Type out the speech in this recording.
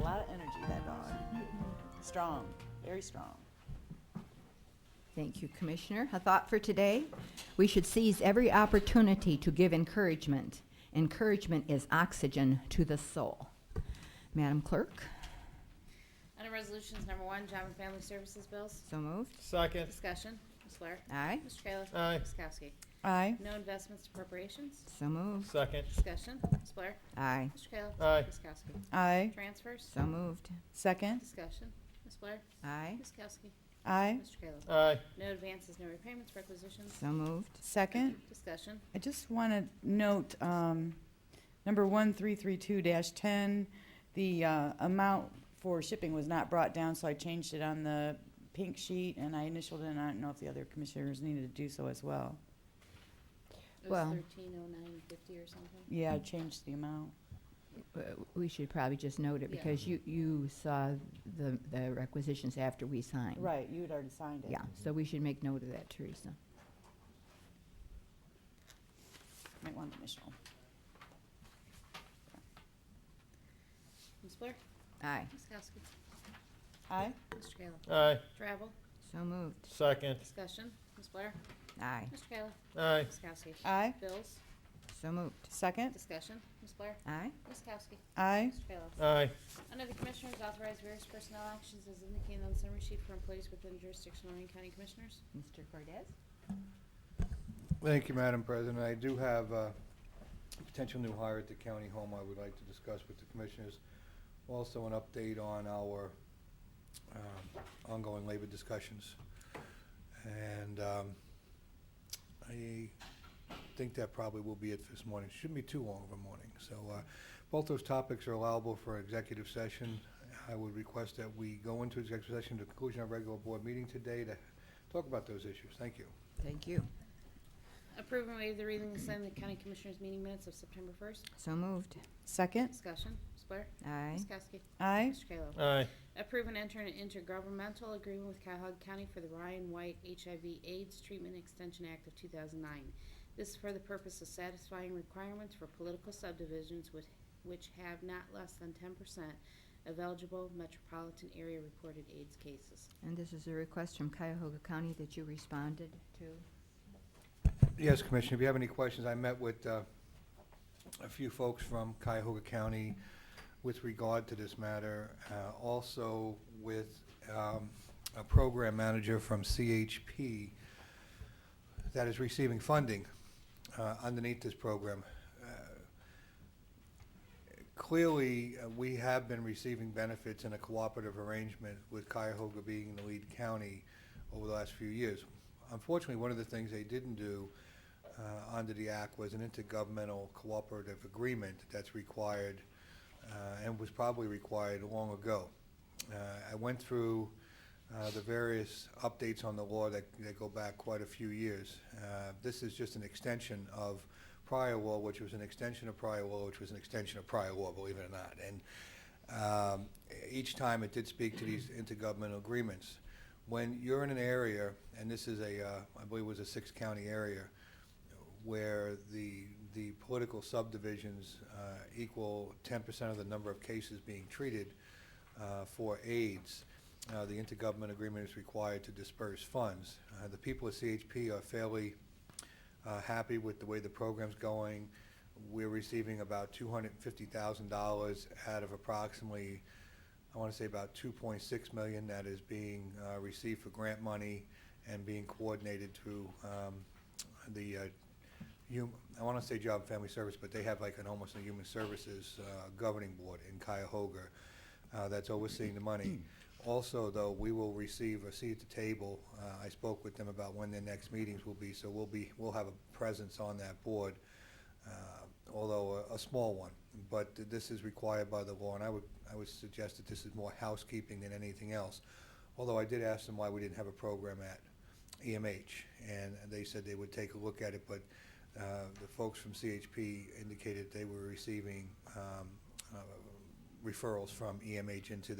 lot of energy, that dog. Strong, very strong. Thank you, Commissioner. A thought for today? We should seize every opportunity to give encouragement. Encouragement is oxygen to the soul. Madam Clerk, Under Resolutions Number One, Job and Family Services Bills. so moved. Second. Discussion. Ms. Blair. Aye, Mr. Kayla. Aye. Ms. Kowski. Aye. No investments appropriations. so moved. Second. Discussion. Ms. Blair. Aye, Mr. Kayla. Aye. Ms. Kowski. Aye. Transfers. so moved. Second. Discussion. Ms. Blair. Aye, Ms. Kowski. Aye. Mr. Kayla. Aye. No advances, no repayments, requisitions. so moved. Second. Discussion. I just want to note, um, number 1332-10, the uh, amount for shipping was not brought down, so I changed it on the pink sheet, and I initialed it, and I don't know if the other commissioners needed to do so as well. It was Well- thirteen oh nine fifty or something. Yeah, I changed the amount. Uh, We should probably just note it Yeah. because you, you saw the, the requisitions after we signed. Right, you had already signed it. Yeah, so we should make note of that, Teresa. Might want to initial. Ms. Blair. Aye, Ms. Kowski. Aye. Mr. Kayla. Aye. Travel. so moved. Second. Discussion. Ms. Blair. Aye, Mr. Kayla. Aye. Ms. Kowski. Aye. Bills. so moved. Second. Discussion. Ms. Blair. Aye, Ms. Kowski. Aye. Mr. Kayla. Aye. Under the Commissioners, authorize various personnel actions as indicated on the summary sheet for employees within jurisdiction of Lorraine County Commissioners. Mr. Cordez? Thank you, Madam President. I do have uh, a potential new hire at the county home I would like to discuss with the commissioners. Also, an update on our um, ongoing labor discussions. And um, I think that probably will be it for this morning. Shouldn't be too long of a morning. So uh, both those topics are allowable for executive session. I would request that we go into executive session to conclusion of regular board meeting today to talk about those issues. Thank you. Thank you. Approve and waive the reading and sign the County Commissioners meeting minutes of September 1st. So moved. Second. Discussion, Ms. Blair. Aye, Ms. Kowski. Aye. Mr. Kayla. Aye. Approve and enter an intergovernmental agreement with Cuyahoga County for the Ryan White HIV AIDS Treatment Extension Act of 2009. This is for the purpose of satisfying requirements for political subdivisions with- which have not less than 10% of eligible metropolitan area reported AIDS cases. and this is a request from Cuyahoga County that you responded to. Yes, Commissioner, if you have any questions, I met with uh, a few folks from Cuyahoga County with regard to this matter, uh, also with um, a program manager from CHP that is receiving funding uh, underneath this program. Uh, Clearly, uh, we have been receiving benefits in a cooperative arrangement with Cuyahoga being the lead county over the last few years. Unfortunately, one of the things they didn't do uh, under the act was an intergovernmental cooperative agreement that's required uh, and was probably required long ago. Uh, I went through uh, the various updates on the law that, that go back quite a few years. Uh, This is just an extension of prior law, which was an extension of prior law, which was an extension of prior law, believe it or not. And um, each time it did speak to these intergovernmental agreements. When you're in an area, and this is a, uh, I believe it was a six-county area, where the, the political subdivisions uh, equal 10% of the number of cases being treated uh, for AIDS, uh, the intergovernment agreement is required to disperse funds. Uh, The people at CHP are fairly uh, happy with the way the program's going. We're receiving about $250,000 out of approximately, I want to say about 2.6 million that is being uh, received for grant money and being coordinated through um, the, uh, hum- I want to say Job and Family Service, but they have like an almost a Human Services uh, Governing Board in Cuyahoga uh, that's overseeing the money. Also, though, we will receive a seat at the table. Uh, I spoke with them about when their next meetings will be, so we'll be, we'll have a presence on that board, uh, although a, a small one. But th- this is required by the law, and I would, I would suggest that this is more housekeeping than anything else. Although I did ask them why we didn't have a program at EMH, and they said they would take a look at it, but uh, the folks from CHP indicated they were receiving um, uh, referrals from EMH into